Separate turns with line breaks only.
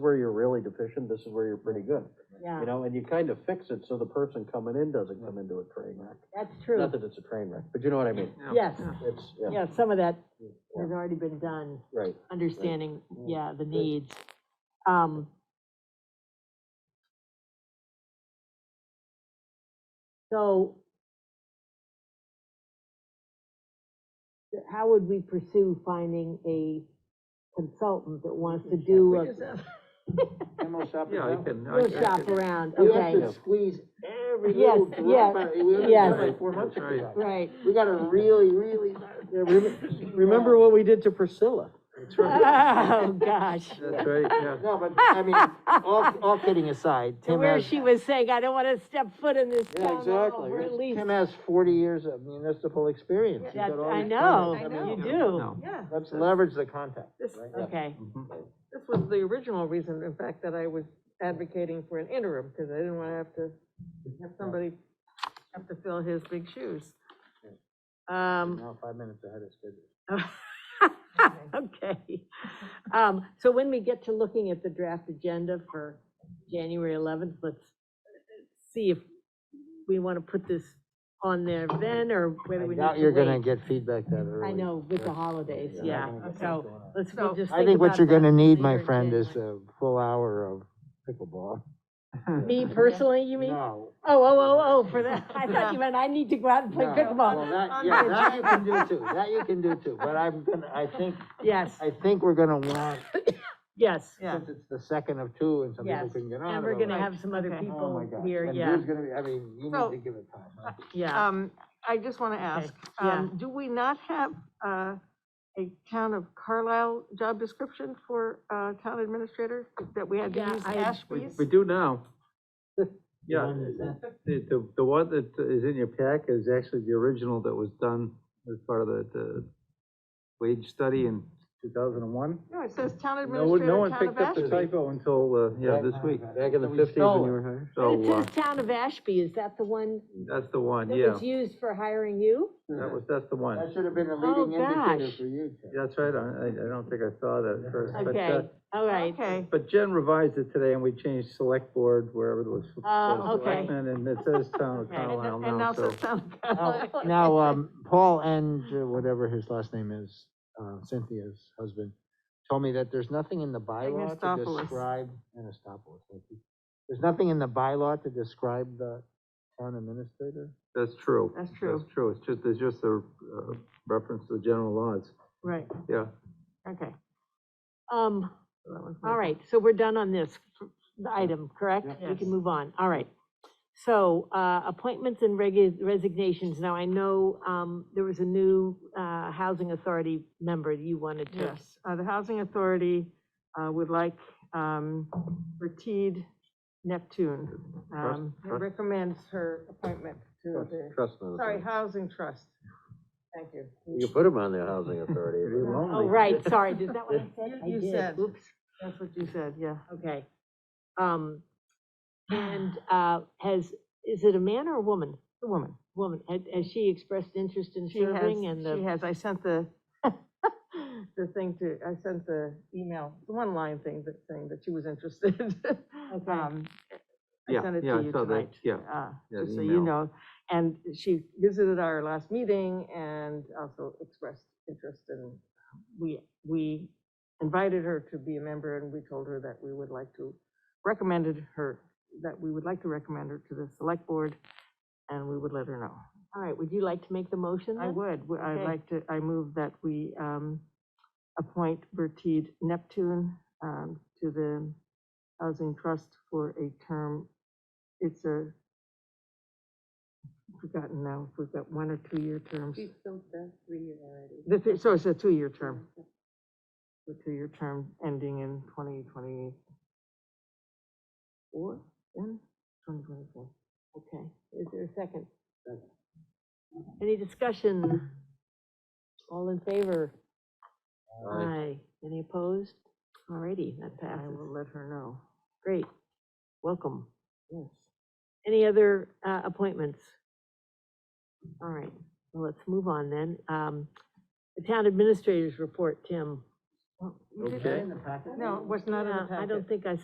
deficient, this is where you're pretty good.
yeah,
You know, and you kind of fix it so the person coming in doesn't come into a train wreck.
that's
Not
true.
that it's a train wreck, but you know what I mean?
Yes,
It's, yeah,
yeah, some of that
Yeah.
has already been done,
right. Mm.
understanding, yeah, the
Good.
needs. Um. So. th- How would we pursue finding a consultant that wants to do a
Demo shop is
Yeah, I
out.
can. I- I
workshop
can-
around,
We
okay?
have to squeeze every
Yes,
little
yes,
drop out, we only
yes.
done like four months
That's right.
ago.
Right.
We gotta really, really.
Remember what we did to Priscilla?
That's right,
Oh, gosh.
that's right, yeah.
No, but, I mean, all, all kidding aside,
And
Tim
where
has.
she was saying, I don't want to step foot in this
Yeah,
town hall,
exactly.
we're at least.
Tim has forty years of municipal experience. He's
That-
got all
I
these
know,
contacts.
you
mean,
do,
Yeah,
Let's leverage the contact,
this,
right?
okay,
Mm-hmm.
this was the original reason, in fact, that I was advocating for an interim, because I didn't want to have to have somebody have to fill his big shoes. Um,
Now five minutes ahead of schedule.
okay. Um, so when we get to looking at the draft agenda for January eleventh, let's see if we want to put this on there then, or whether
I
we
doubt
need
you're
to
gonna
wait.
get feedback that early.
I know, with the
Yeah.
holidays,
You're
yeah,
not gonna
so,
get that going.
let's,
So,
we'll just
I think what
about
you're
that
gonna need, my
later in
friend, is
January.
a full hour of pickleball.
Me personally, you mean?
No.
Oh, oh, oh, oh, for that, I thought you meant I need to go out and play
no. Well,
pickleball.
that, yeah, that you can do too, that you can do too, but I'm gonna, I think,
Yes,
I think we're gonna want,
yes,
Yeah.
since it's the second of two and some people
Yes,
couldn't get on.
and we're gonna
otherwise-
have some other
Okay.
Oh my
people
God.
here,
And
yeah,
there's gonna be, I mean, you
So-
need to give it time. huh?
yeah.
um, I just want to ask,
yeah.
um, do we not have, uh, a town of Carlisle job description for, uh, town administrator that we had to
Yeah,
use
I-
We,
Ashby's?
we do now. Yeah,
one that's-
the, the, the one that is in your pack is actually the original that was done as part of the, the wage study in two thousand and one.
No, it says town
No, one-
administrator,
no one
town
picked
of
up the
Ashby.
typo until, uh, yeah, this week.
Back in the
We
50s when
stole
you
it.
were hired?
But it
So, uh,
says town of Ashby, is that the one
that's the one,
that
yeah.
was used for hiring you?
That was, that's the
That
one.
should have been a
Oh,
leading indicator
gosh.
for you. Ted.
That's right, I, I I don't think I saw that at first. but,
Okay,
uh,
all right,
Okay,
But Jen revised it today and we changed select board wherever it was.
Oh,
was
okay.
selectmen, And it says town of
Okay. And-
Carlisle
and
now,
now
so.
says town of
Oh,
Now,
Carlisle.
now, um, Paul and uh, whatever his last name is, uh, Cynthia's husband, told me that there's nothing in the bylaw to
Anastopoulos.
describe, Anastopoulos, thank you. There's nothing in the bylaw to describe the town administrator?
That's true.
That's true.
That's true, it's just, there's just a, uh reference to the general laws,
Right,
yeah.
okay.
um,
So that was my-
all right, so we're done on this f- item, correct?
Yep.
We
Yes.
can move on, all right. So, uh, appointments and regu- resignations, now I know, um, there was a new, uh, housing authority member you wanted to.
Yes, uh, the Housing Authority, uh, would like, um, Retied Neptune. Um,
Trust- trust-
recommends her appointment to the,
Trust me.
sorry, Housing Trust. Thank you.
You put them on the housing authority.
Pretty lonely.
Oh, right, sorry, is that what I said? I
You
did,
said.
Oops,
That's what you said, yeah.
okay. Um, and, uh, has, is it a man or a woman?
The woman.
Woman, has, has she expressed interest in
She has,
serving and
she
the,
has, I sent the, the thing to, I sent the email, the one line thing, that saying that she was interested.
Okay.
Um, I
Yeah,
sent it
yeah,
to
I
you
saw that,
tonight.
yeah,
uh,
yeah,
Just
the
so
email.
you know. And she visited our last meeting and also expressed interest and we, we invited her to be a member and we told her that we would like to recommended her, that we would like to recommend her to the select board and we would let her know.
all right, would you like to make the motion
I
then?
would, W- I'd
Okay.
like to, I move that we um, appoint Bertid Neptune um, to the Housing Trust for a term, it's a, I've forgotten now, if we've got one or two-year terms.
She's filled the three-year already.
The thi- So it's a two-year term, a two-year term ending in 2024, then, 2024.
Okay, is there a second? Any discussion? All in favor? Aye. Any opposed? Alrighty, that
I
passes.
will let her know.
Great. Welcome. Yes. Any other uh, appointments? All right, well, let's move on then. Um, The town administrators report, Tim.
Well, you did-
Okay.
In the packet?
No, it was not in the
Yeah, I
packet.
don't think I